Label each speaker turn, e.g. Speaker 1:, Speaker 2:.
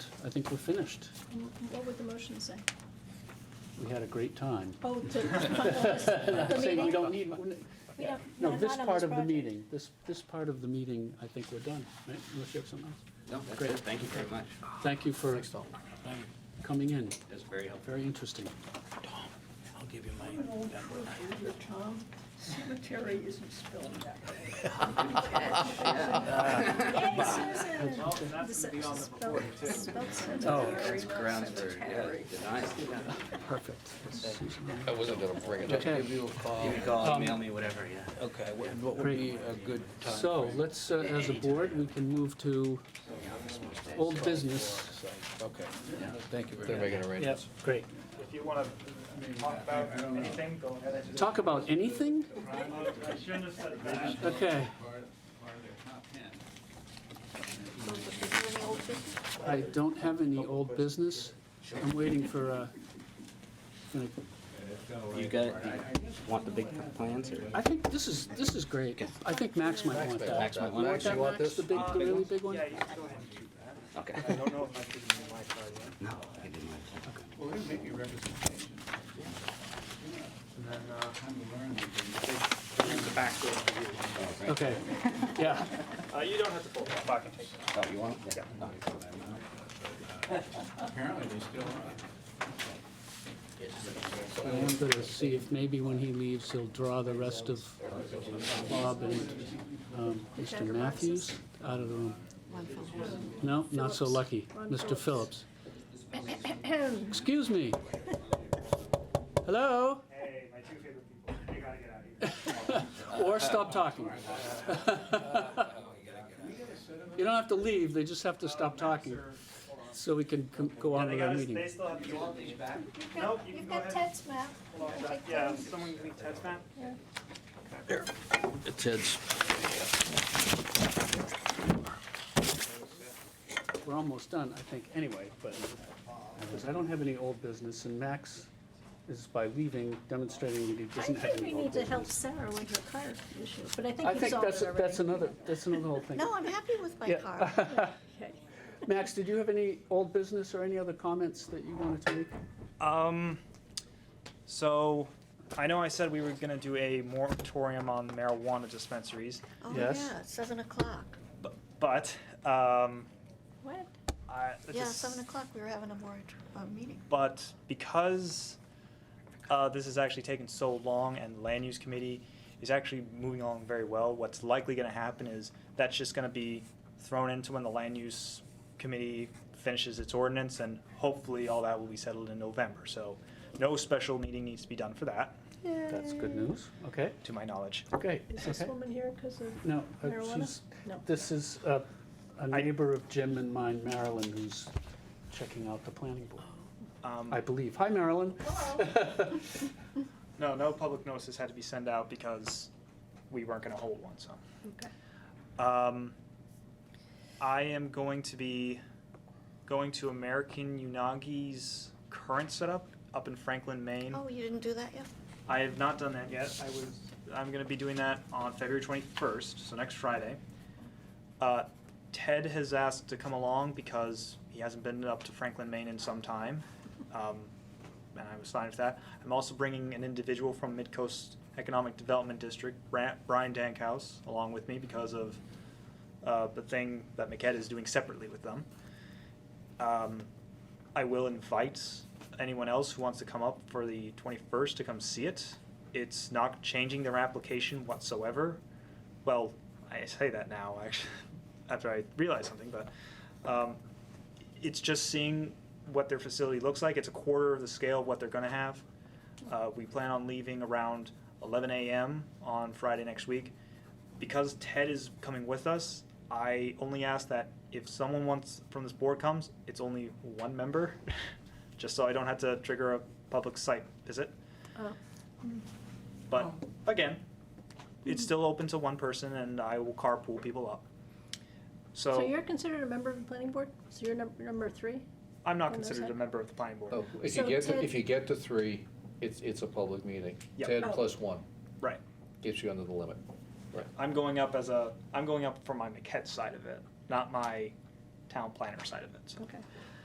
Speaker 1: I think we're finished.
Speaker 2: What would the motion say?
Speaker 1: We had a great time.
Speaker 2: Oh, to,
Speaker 1: Not
Speaker 2: the
Speaker 1: saying we
Speaker 2: meeting?
Speaker 1: don't need,
Speaker 2: We don't,
Speaker 1: no,
Speaker 2: no,
Speaker 1: this
Speaker 2: not on
Speaker 1: part of
Speaker 2: this
Speaker 1: the
Speaker 2: project.
Speaker 1: meeting, this, this part of the meeting, I think we're done, right? Unless you have something else.
Speaker 3: No, that's
Speaker 1: Great.
Speaker 3: it. Thank you very much.
Speaker 1: Thank you for coming in.
Speaker 3: That's very helpful.
Speaker 1: Very interesting.
Speaker 4: I'll give you
Speaker 5: I'm an old fool here, Tom. Cemetery isn't spelled that way.
Speaker 2: Hey, Susan!
Speaker 6: Well, and that's gonna be on the recording too.
Speaker 2: Spelled
Speaker 1: Oh.
Speaker 2: cemetery, not
Speaker 3: Grounds for, yeah,
Speaker 2: cemetery.
Speaker 3: denial.
Speaker 1: Perfect.
Speaker 4: I wasn't gonna bring it up.
Speaker 1: Okay.
Speaker 4: Give you a call.
Speaker 3: You can call,
Speaker 1: Um,
Speaker 3: mail me, whatever, yeah.
Speaker 4: Okay, wh- what would be a good time?
Speaker 1: So let's, uh, as a board, we can move to old business.
Speaker 4: Okay, thank you very much.
Speaker 7: They're making arrangements.
Speaker 1: great.
Speaker 6: If you wanna talk about anything, go ahead.
Speaker 1: Talk about anything?
Speaker 6: I shouldn't have said that.
Speaker 1: Okay, I don't have any old business. I'm waiting for, uh, gonna-
Speaker 3: oh, You got, you want the big plans or?
Speaker 1: I think this is, this is great. I think Max might want that.
Speaker 3: Max might want
Speaker 1: You
Speaker 3: it.
Speaker 1: want that,
Speaker 3: You want
Speaker 1: Max? The
Speaker 3: this?
Speaker 1: big, the really big one?
Speaker 6: Yeah, you can go ahead and do that.
Speaker 3: Okay.
Speaker 6: I don't know if I could use my card yet.
Speaker 3: No, I didn't like that.
Speaker 5: Well, it'll make you representation.
Speaker 6: And then, uh,
Speaker 5: Time to learn.
Speaker 3: Here's the back door for you. Oh,
Speaker 1: Okay, yeah.
Speaker 6: uh, you don't have to pull that back and take it.
Speaker 3: right. Oh, you want it? Yeah.
Speaker 5: Apparently they still are.
Speaker 1: I am gonna see if maybe when he leaves, he'll draw the rest of Bob and um, Mr.
Speaker 2: Jack
Speaker 1: Matthews out of the room. No, not so lucky. Mr. Phillips. Excuse me. Hello?
Speaker 6: Hey, my two favorite people, you gotta get out of here.
Speaker 1: Or stop talking. You don't have to leave, they just have to stop talking, so we can com- go
Speaker 6: Yeah,
Speaker 1: on
Speaker 6: they
Speaker 1: with our
Speaker 6: gotta,
Speaker 1: meeting.
Speaker 6: they still have to. You want these back? Nope, you can
Speaker 2: We've
Speaker 6: go
Speaker 2: got
Speaker 6: ahead.
Speaker 2: Ted's map.
Speaker 6: Hold on.
Speaker 2: Take
Speaker 6: Yeah,
Speaker 2: Ted's.
Speaker 6: someone give me Ted's map?
Speaker 4: It's Ed's.
Speaker 1: We're almost done, I think, anyway, but, because I don't have any old business, and Max is by leaving demonstrating that he
Speaker 2: I
Speaker 1: doesn't have
Speaker 2: think we
Speaker 1: any old
Speaker 2: need to help
Speaker 1: business.
Speaker 2: Sarah with her car issue, but I
Speaker 1: I
Speaker 2: think we
Speaker 1: think
Speaker 2: solved
Speaker 1: that's,
Speaker 2: it already.
Speaker 1: that's another, that's another whole thing.
Speaker 2: No, I'm happy with my
Speaker 1: Yeah. uh,
Speaker 2: car. Okay.
Speaker 1: Max, did you have any old business or any other comments that you wanted to make?
Speaker 2: Uh,
Speaker 6: Um, so, I know I said we were gonna do a moratorium on marijuana dispensaries,
Speaker 2: Oh,
Speaker 1: Yes.
Speaker 2: yeah, it's seven o'clock.
Speaker 6: bu- but, um,
Speaker 2: What?
Speaker 6: I. the
Speaker 2: Yeah,
Speaker 6: s-
Speaker 2: seven o'clock, we were having a more, a meeting.
Speaker 6: But because, uh, this has actually taken so long and land use committee is actually moving along very well, what's likely gonna happen is that's just gonna be thrown into when the land use committee finishes its ordinance and hopefully all that will be settled in November, so no special meeting needs to be done for that,
Speaker 1: That's good news, okay,
Speaker 6: to my knowledge.
Speaker 1: okay,
Speaker 5: Is this
Speaker 1: okay.
Speaker 5: woman here because of
Speaker 1: No, uh,
Speaker 5: Marijuana?
Speaker 1: she's,
Speaker 5: No.
Speaker 1: this is uh, a
Speaker 6: I-
Speaker 1: neighbor of Jim and mine, Marilyn, who's checking out the planning board,
Speaker 6: Um,
Speaker 1: I believe. Hi, Marilyn.
Speaker 6: No, no public notices had to be sent out because we weren't gonna hold one, so. Um, I am going to be going to American Unagi's current setup up in Franklin, Maine.
Speaker 2: Oh, you didn't do that yet?
Speaker 6: I have not done that yet. I was, I'm gonna be doing that on February twenty-first, so next Friday. Uh, Ted has asked to come along because he hasn't been up to Franklin, Maine in some time. Um, and I was fine with that. I'm also bringing an individual from Midcoast Economic Development District, Bra- Brian Dankhouse, along with me because of, uh, the thing that Maquette is doing separately with them. Um, I will invite anyone else who wants to come up for the 21st to come see it. It's not changing their application whatsoever. Well, I say that now, actually, after I realize something, but um, it's just seeing what their facility looks like. It's a quarter of the scale of what they're going to have. Uh, we plan on leaving around 11 a.m. on Friday next week. Because Ted is coming with us, I only ask that if someone wants from this board comes, it's only one member, just so I don't have to trigger a public site visit.
Speaker 2: Oh.
Speaker 6: But
Speaker 8: Oh.
Speaker 6: again, it's still open to one person, and I will carpool people up. So,
Speaker 8: So you're considered a member of the planning board? So you're number, number three?
Speaker 6: I'm not
Speaker 8: on those
Speaker 6: considered a
Speaker 8: side?
Speaker 6: member of the planning board.
Speaker 7: Oh, If you
Speaker 8: So
Speaker 7: get, to-
Speaker 8: Ted-
Speaker 7: if you get to three, it's, it's a public meeting.
Speaker 6: Yeah.
Speaker 7: Ted
Speaker 8: Oh.
Speaker 7: plus one
Speaker 6: Right.
Speaker 7: gets you under the limit.
Speaker 6: I'm going up as a I'm going up for my maquette side of it, not my town planner side of it. So.
Speaker 8: Okay.